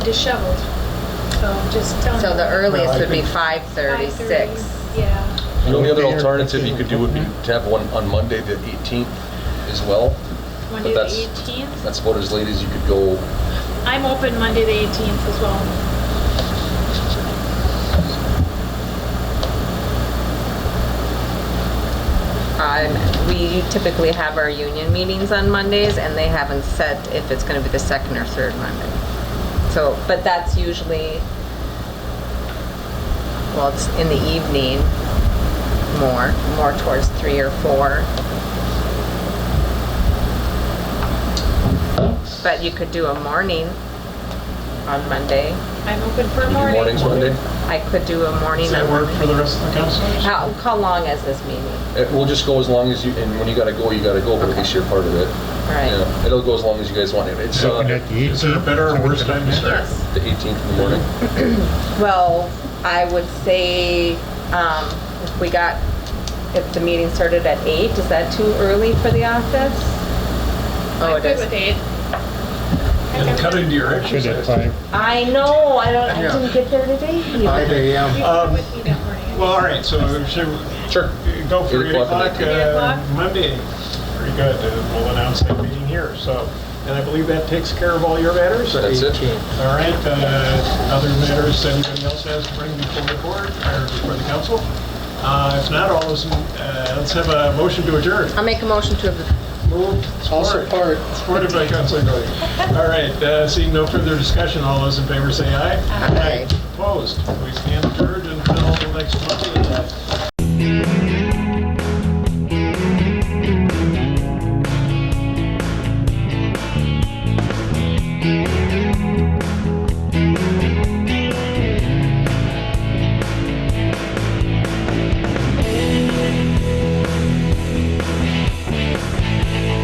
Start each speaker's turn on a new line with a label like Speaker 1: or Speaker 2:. Speaker 1: disheveled. So just tell
Speaker 2: So the earliest would be
Speaker 3: Well,
Speaker 2: 5:30, 6.
Speaker 1: Yeah.
Speaker 4: The only other alternative you could do would be to have one on Monday, the 18th as well.
Speaker 1: Monday
Speaker 4: But
Speaker 1: the
Speaker 4: that's-
Speaker 1: 18th.
Speaker 4: That's about as late as you could go.
Speaker 1: I'm open Monday the 18th as well.
Speaker 2: Um, We typically have our union meetings on Mondays, and they haven't set if it's going to be the second or third Monday. So, but that's usually, well, it's in the evening more, more towards 3 or 4. But you could do a morning on Monday.
Speaker 1: I'm open for
Speaker 4: Could you do
Speaker 1: morning.
Speaker 4: mornings Monday?
Speaker 2: I could do a morning
Speaker 3: Does
Speaker 2: on
Speaker 3: that work for
Speaker 2: Monday.
Speaker 3: the rest of the councilors?
Speaker 2: How, how long is this meeting?
Speaker 4: It will just go as long as you, and when you gotta go, you gotta go, but at least you're part of it.
Speaker 2: Right.
Speaker 4: Yeah, It'll go as long as you guys want it. It's uh, the
Speaker 3: Is there a better or worse time to start?
Speaker 1: Yes.
Speaker 4: 18th in the morning.
Speaker 2: Well, I would say, um, if we got, if the meeting started at eight, is that too early for the office? Oh,
Speaker 1: I'm
Speaker 2: it
Speaker 1: good with 8.
Speaker 2: is. Oh,
Speaker 3: And cut into your exercise.
Speaker 2: I know, I don't, I didn't get there today.
Speaker 5: Five
Speaker 2: either.
Speaker 1: You
Speaker 5: AM.
Speaker 1: can
Speaker 3: Um,
Speaker 1: come with me that morning.
Speaker 3: Well, all right, so should we
Speaker 4: Sure.
Speaker 3: go for
Speaker 4: Eight
Speaker 3: 8
Speaker 4: o'clock
Speaker 3: o'clock
Speaker 4: and
Speaker 1: eight. Eight o'clock?
Speaker 3: uh, Monday? Very good, Uh, we'll announce that meeting here, so, and I believe that takes care of all your matters? All
Speaker 4: That's it.
Speaker 5: 18.
Speaker 3: right, uh, other matters that anybody else has to bring before the board, or before the council? Uh, If not, all those, uh, let's have a motion to adjourn.
Speaker 2: I'll make a motion to,
Speaker 3: Moved.
Speaker 5: I'll support.
Speaker 3: Supported by Councilor Doty. All right, uh, seeing no further discussion, all those in favor say aye.
Speaker 2: Aye.
Speaker 3: Opposed? We stand adjourned until next month at